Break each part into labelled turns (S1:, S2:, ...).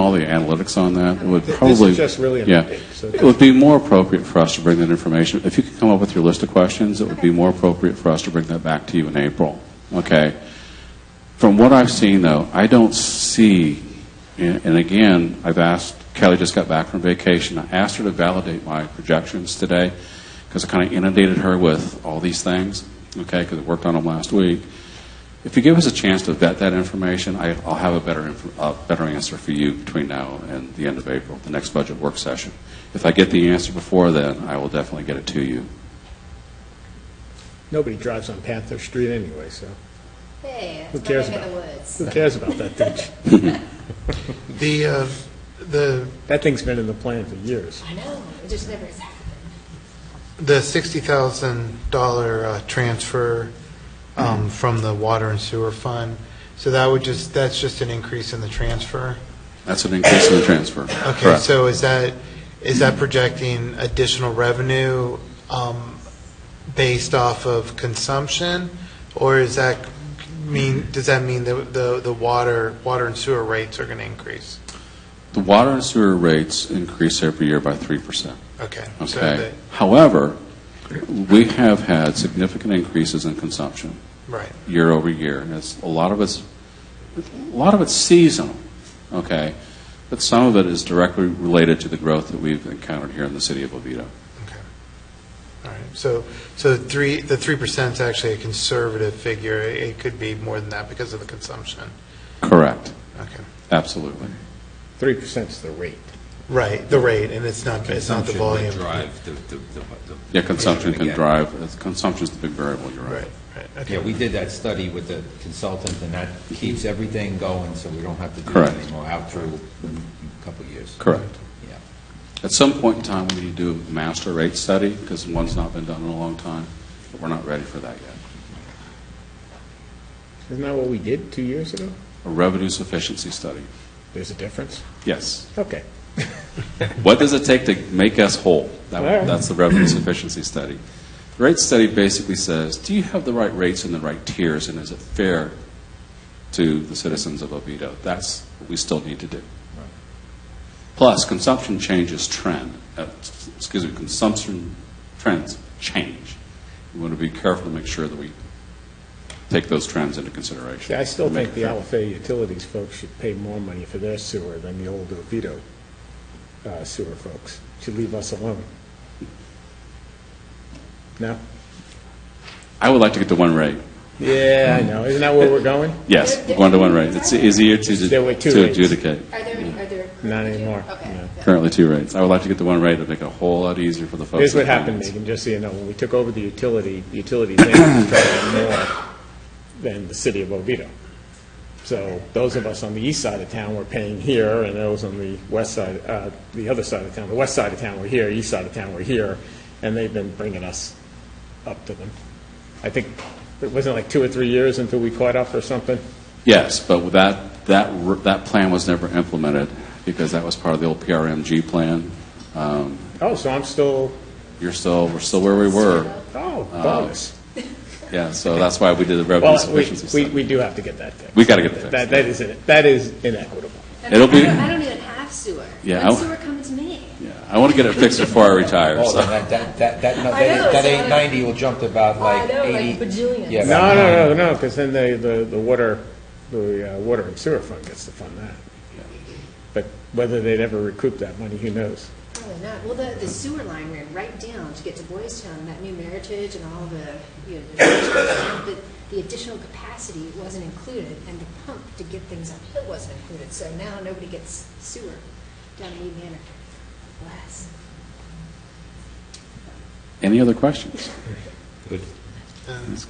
S1: all the analytics on that would
S2: Th-
S1: probably...
S2: This is just really an
S1: Yeah.
S2: update. so
S1: It would be more appropriate for us to bring that information, if you could come up with your list of questions, it would be more appropriate for us to bring that back to you in April, okay? From what I've seen, though, I don't see, and and again, I've asked, Kelly just got back from vacation, I asked her to validate my projections today, because I kind of inundated her with all these things, okay, because I worked on them last week. If you give us a chance to vet that information, I- I'll have a better, inf- a better answer for you between now and the end of April, the next budget work session. If I get the answer before then, I will definitely get it to you.
S2: Nobody drives on Panther Street anyway, so
S3: Hey,
S2: Who
S3: it's my
S2: cares
S3: neck of
S2: about
S3: the woods.
S2: who cares about that thing?
S4: The, uh, the,
S2: That thing's been in the plan for years.
S3: I know, it just never has happened.
S4: the $60,000 uh, transfer
S1: Mm-hmm.
S4: um, from the water and sewer fund, so that would just, that's just an increase in the transfer?
S1: That's an increase in the transfer.
S4: Okay,
S1: Correct.
S4: so is that, is that projecting additional revenue um, based off of consumption? Or is that mean, does that mean that the, the water, water and sewer rates are going to increase?
S1: The water and sewer rates increase every year by 3%.
S4: Okay. so
S1: Okay. However, we have had significant increases in consumption
S4: the- Right.
S1: year over year, and it's, a lot of it's, a lot of it's seasonal, okay? But some of it is directly related to the growth that we've encountered here in the city of Oviedo.
S4: All right, so, so the three, the three percent is actually a conservative figure. It could be more than that because of the consumption.
S1: Correct.
S4: Okay,
S1: Absolutely.
S2: Three percent's the rate.
S4: right, the rate, and it's not, it's not the volume.
S5: Drive the, the, the. the-
S1: Yeah, consumption can
S5: Yeah.
S1: drive, it's- consumption's the big variable, you're right.
S4: Right, right, okay.
S5: Yeah, we did that study with the consultant, and that keeps everything going, so we don't have to do
S1: Correct.
S5: that anymore out through a couple of years.
S1: Correct.
S5: Yeah.
S1: At some point in time, we need to do a master rate study, because one's not been done in a long time, but we're not ready for that yet.
S2: Isn't that what we did two years ago?
S1: A revenue sufficiency study,
S2: There's a difference?
S1: yes.
S2: Okay.
S1: What does it take to make us whole? That-
S2: All right.
S1: That's the revenue sufficiency study. The rate study basically says, do you have the right rates and the right tiers, and is it fair to the citizens of Oviedo? That's what we still need to do. Plus, consumption changes trend, uh, s- excuse me, consumption trends change. We want to be careful to make sure that we take those trends into consideration.
S2: See, I still
S1: Make
S2: think the
S1: it fair.
S2: LFA utilities folks should pay more money for their sewer than the old Oviedo uh, sewer folks. Should leave us alone. No?
S1: I would like to get to one rate.
S2: Yeah, I know. Isn't that where we're going?
S1: Yes, one to one rate. It's easier to
S2: There were two
S1: to
S2: rates.
S1: adjudicate.
S3: Are there, are there?
S2: Not anymore,
S3: Okay.
S2: no.
S1: Currently two rates. I would like to get the one rate to make it a whole lot easier for the folks.
S2: Here's
S1: in
S2: what happened,
S1: finance.
S2: Megan, just so you know, when we took over the utility, the utility they were charging more than the city of Oviedo. So those of us on the east side of town were paying here, and those on the west side, uh, the other side of town, the west side of town were here, east side of town were here, and they've been bringing us up to them. I think, it wasn't like two or three years until we caught up or something?
S1: Yes, but with that, that, r- that plan was never implemented because that was part of the old PRMG plan. Um,
S2: Oh, so I'm still,
S1: You're still, we're still where we were.
S2: oh, bonus.
S1: Yeah, so that's why we did the revenue
S2: Well, we,
S1: sufficiency
S2: we
S1: study.
S2: we do have to get that fixed.
S1: We gotta get it fixed.
S2: That, that is, in- that is inequitable.
S3: I mean,
S1: It'll be-
S3: I don't- I don't even have sewer.
S1: Yeah,
S3: Let
S1: I-
S3: sewer come to me.
S1: Yeah, I want to get it fixed before I retire,
S5: Oh,
S1: so.
S5: that, that, that, that, no,
S3: I know,
S5: that that
S3: so I-
S5: eight ninety will jump to about
S3: I
S5: like
S3: know, like
S5: eighty.
S3: bajillions.
S5: Yeah,
S2: No,
S5: about
S2: no, no,
S5: 90.
S2: no, because then the, the, the water, the uh, water and sewer fund gets to fund that. But whether they'd ever recoup that money, who knows?
S3: Probably not. Well, the, the sewer line ran right down to get to Boys Town, that new Meritage and all the, you know, the, the additional capacity wasn't included, and the pump to get things uphill wasn't included, so now nobody gets sewer down in Lee Manor. Bless.
S1: Any other questions?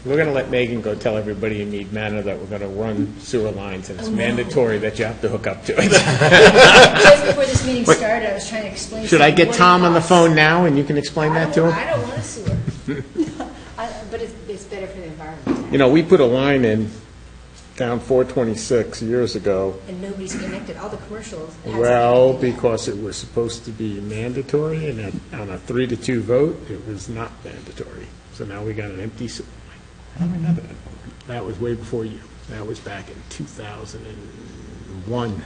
S2: We're going to let Megan go tell everybody in Mead Manor that we're going to run sewer lines, and it's
S3: Oh, no.
S2: mandatory that you have to hook up to it.
S3: Just before this meeting started, I was trying to explain.
S2: Should I
S3: something,
S2: get
S3: what it
S2: Tom on the
S3: costs.
S2: phone now, and you can explain
S3: I
S2: that
S3: don't-
S2: to him?
S3: I don't want a sewer. I- But it's, it's better for the environment,
S2: You know, we put a line in down 426 years ago,
S3: and nobody's connected, all the commercials. has-
S2: Well, because it was supposed to be mandatory, and at- on a three to two vote, it was not mandatory. So now we got an empty sewer line. I don't remember that. That was way before you. That was back in 2001.